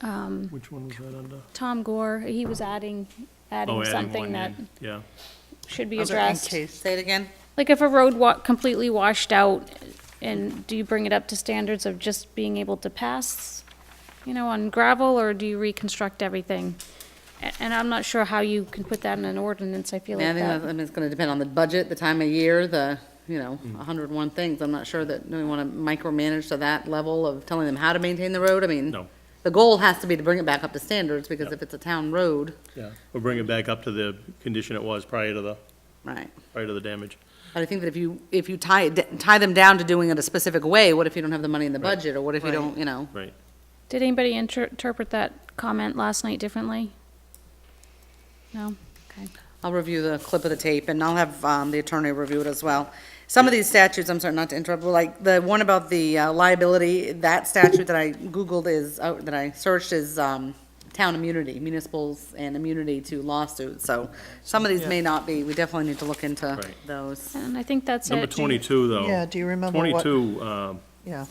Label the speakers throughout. Speaker 1: um,
Speaker 2: Which one was that under?
Speaker 1: Tom Gore, he was adding,
Speaker 3: Oh,
Speaker 1: adding
Speaker 3: adding
Speaker 1: something
Speaker 3: one
Speaker 1: that
Speaker 3: in, Yeah,
Speaker 1: should be
Speaker 4: Those are
Speaker 1: addressed.
Speaker 4: in two. Say it again.
Speaker 1: Like if a road wa, completely washed out, and do you bring it up to standards of just being able to pass, you know, on gravel, or do you reconstruct everything? A- And I'm not sure how you can put that in an ordinance, I feel
Speaker 4: Yeah, I
Speaker 1: like
Speaker 4: think that, I
Speaker 1: that.
Speaker 4: mean, it's gonna depend on the budget, the time of year, the, you know,
Speaker 3: Mm.
Speaker 4: a hundred and one things. I'm not sure that we wanna micromanage to that level of telling them how to maintain the road. I mean.
Speaker 3: No.
Speaker 4: The goal has to be to bring it back up to standards, because if it's a town road,
Speaker 3: yeah. We'll bring it back up to the condition it was prior to the,
Speaker 4: right.
Speaker 3: prior to the damage.
Speaker 4: But I think that if you, if you tie, it d- tie them down to doing it a specific way, what if you don't have the money in the
Speaker 3: Right.
Speaker 4: budget, or what if you don't, you know?
Speaker 3: Right.
Speaker 1: Did anybody inter- interpret that comment last night differently? No? Okay.
Speaker 4: I'll review the clip of the tape, and I'll have um, the attorney review it as well. Some of these statutes, I'm sorry, not to interrupt, but like, the one about the uh, liability, that statute that I Googled is, uh, that I searched is um, town immunity, municipals and immunity to lawsuits, so some of these may not be, we definitely need to look into
Speaker 3: Right.
Speaker 4: those.
Speaker 1: And I think that's it.
Speaker 3: Number twenty-two, though.
Speaker 5: Yeah, do you remember what-
Speaker 3: Twenty-two, um,
Speaker 5: Yeah,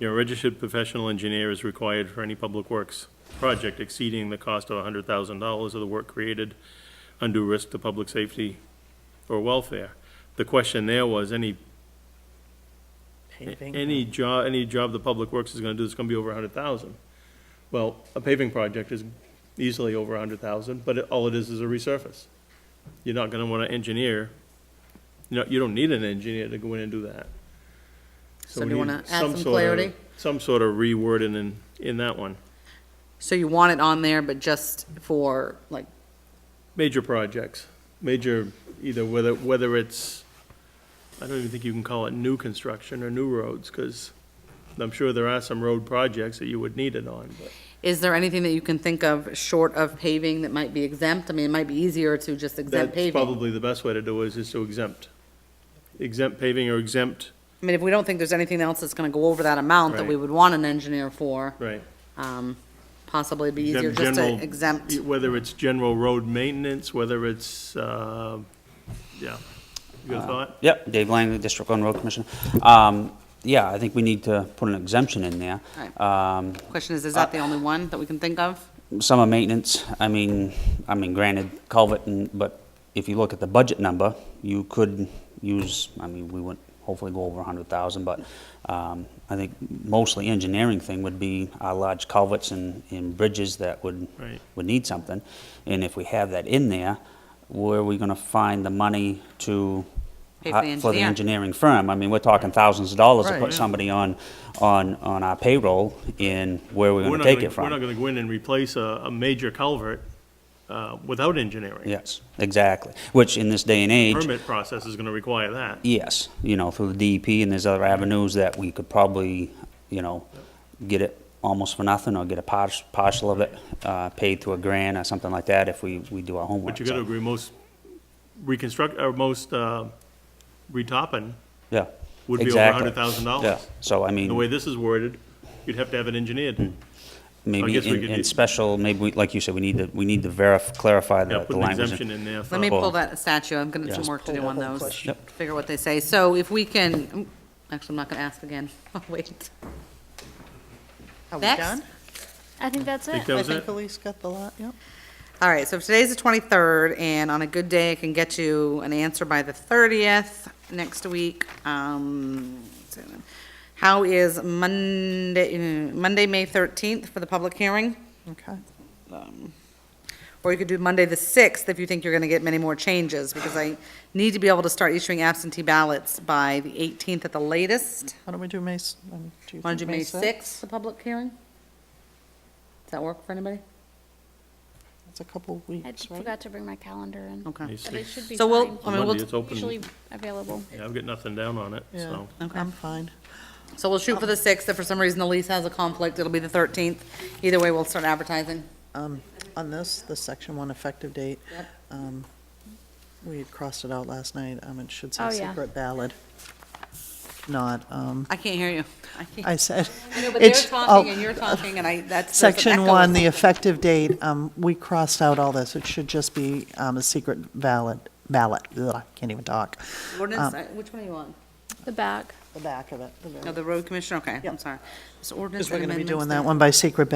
Speaker 3: you know, registered professional engineer is required for any public works project exceeding the cost of hundred thousand dollars of the work created, undue risk to public safety or welfare. The question there was, any
Speaker 5: paving.
Speaker 3: Any job, any job the public works is gonna do is gonna be over a hundred thousand. Well, a paving project is easily over a hundred thousand, but it- all it is is a resurface. You're not gonna wanna engineer, you know, you don't need an engineer to go in and do that.
Speaker 4: So do you
Speaker 3: we need
Speaker 4: wanna add some
Speaker 3: sort of-
Speaker 4: clarity?
Speaker 3: Some sort of rewording in, in that one.
Speaker 4: So you want it on there, but just for, like,
Speaker 3: Major projects, major, either whether, whether it's, I don't even think you can call it new construction or new roads, cause I'm sure there are some road projects that you would need it on, but.
Speaker 4: is there anything that you can think of short of paving that might be exempt? I mean, it might be easier to just
Speaker 3: That's
Speaker 4: exempt paving.
Speaker 3: probably the best way to do it, is just to exempt. Exempt paving or exempt,
Speaker 4: I mean, if we don't think there's anything else that's gonna go over that amount that we
Speaker 3: Right.
Speaker 4: would want an engineer for,
Speaker 3: right.
Speaker 4: um, possibly it'd be easier
Speaker 3: Exempt
Speaker 4: just to
Speaker 3: general- e,
Speaker 4: exempt.
Speaker 3: Whether it's general road maintenance, whether it's, uh, yeah, you
Speaker 4: Uh,
Speaker 3: got a thought?
Speaker 6: Yep, Dave Lang, District One Road Commissioner. Um, yeah, I think we need to put an exemption in there.
Speaker 4: Right.
Speaker 6: Um,
Speaker 4: Question is, is that the
Speaker 3: Uh,
Speaker 4: only one that we can think of?
Speaker 6: summer maintenance, I mean, I mean, granted, culvert and, but if you look at the budget number, you could use, I mean, we would hopefully go over a hundred thousand, but, um, I think mostly engineering thing would be our large culverts and, and bridges that would,
Speaker 3: Right.
Speaker 6: would need something. And if we have that in there, where are we gonna find the money to?
Speaker 4: Pay for the
Speaker 6: hi- For the
Speaker 4: engineer.
Speaker 6: engineering firm, I mean, we're talking thousands of dollars to
Speaker 5: Right,
Speaker 6: put
Speaker 5: yeah.
Speaker 6: somebody on, on, on our payroll, and where are we
Speaker 3: We're
Speaker 6: gonna
Speaker 3: not
Speaker 6: take
Speaker 3: gonna-
Speaker 6: it from?
Speaker 3: We're not gonna go in and replace a, a major culvert, uh, without engineering.
Speaker 6: Yes, exactly. Which in this day and age,
Speaker 3: Permit process is gonna require that.
Speaker 6: yes, you know, through the DEP and there's other avenues that we could probably, you know, get it almost for nothing or get a partial, partial of it, uh, paid through a grant or something like that if we, we do our homework.
Speaker 3: But you gotta
Speaker 6: so,
Speaker 3: agree, most reconstruct, or most, uh, retopping,
Speaker 6: Yeah.
Speaker 3: would be over
Speaker 6: exactly.
Speaker 3: $100,000.
Speaker 6: Yeah, so I mean.
Speaker 3: the way this is worded, you'd have to have it engineered.
Speaker 6: maybe
Speaker 3: guess we
Speaker 6: in,
Speaker 3: could
Speaker 6: in
Speaker 3: do-
Speaker 6: special, maybe, we- like you said, we need to, we need to verify, clarify
Speaker 3: Yeah,
Speaker 6: the
Speaker 3: put
Speaker 6: the
Speaker 3: an
Speaker 6: language.
Speaker 3: exemption in there for.
Speaker 4: Let me
Speaker 6: Well-
Speaker 4: pull that statue, I'm gonna have some
Speaker 6: Yeah.
Speaker 4: work to do
Speaker 5: Pull
Speaker 4: on
Speaker 5: the whole
Speaker 4: those,
Speaker 5: question.
Speaker 4: figure what they say. So if we can, actually, I'm not gonna ask again, I'll wait.
Speaker 5: Are we
Speaker 4: Next.
Speaker 5: done?
Speaker 1: I think that's
Speaker 3: Think
Speaker 1: it.
Speaker 3: that
Speaker 5: I
Speaker 3: was
Speaker 5: think
Speaker 3: it?
Speaker 5: Elise got the lot, yep.
Speaker 4: All right, so if today's the 23rd, and on a good day, I can get you an answer by the 30th next week. um, so, How is Monday, uh, Monday, May 13th for the public hearing?
Speaker 5: Okay.
Speaker 4: Or you could do Monday, the 6th, if you think you're going to get many more changes, because I need to be able to start issuing absentee ballots by the 18th at the latest.
Speaker 5: Why don't we do May, s- um, do you
Speaker 4: Want to
Speaker 5: think
Speaker 4: do May
Speaker 5: sixth?
Speaker 4: 6th, the public hearing? Does that work for anybody?
Speaker 5: It's a couple of
Speaker 1: I
Speaker 5: weeks, right?
Speaker 1: forgot to bring my calendar in.
Speaker 4: Okay.
Speaker 1: But it should be
Speaker 4: So
Speaker 1: fine.
Speaker 4: we'll- I mean, we'll-
Speaker 3: Monday, Oh. it's open.
Speaker 1: Usually available.
Speaker 3: Yeah, I've got nothing down on it,
Speaker 5: Yeah,
Speaker 3: so.
Speaker 4: Okay.
Speaker 5: I'm fine.
Speaker 4: So we'll shoot for the 6th. If for some reason Elise has a conflict, it'll be the 13th. Either way, we'll start advertising.
Speaker 5: Um, On this, the section one effective date,
Speaker 4: Yep.
Speaker 5: um, we had crossed it out last night, um, it should
Speaker 1: Oh,
Speaker 5: say
Speaker 1: yeah.
Speaker 5: secret ballot. Not, um,
Speaker 4: I can't hear you. I
Speaker 5: I
Speaker 4: can't.
Speaker 5: said.
Speaker 4: I know, but they're
Speaker 5: it's- oh,
Speaker 4: talking and you're talking and I, that's. there's an
Speaker 5: Section
Speaker 4: echo or
Speaker 5: one, the
Speaker 4: something.
Speaker 5: effective date, um, we crossed out all this, it should just be, um, a secret ballot, ballot, ugh, I can't even talk.
Speaker 4: Ordinance,
Speaker 5: um,
Speaker 4: uh, which one are you on?
Speaker 1: The back.
Speaker 5: The back of it.
Speaker 4: No, the road commissioner, okay, I'm sorry. It's ordinance
Speaker 5: Because we're
Speaker 4: and
Speaker 5: gonna be
Speaker 4: amendments
Speaker 5: doing
Speaker 4: there.
Speaker 5: that one by secret ballot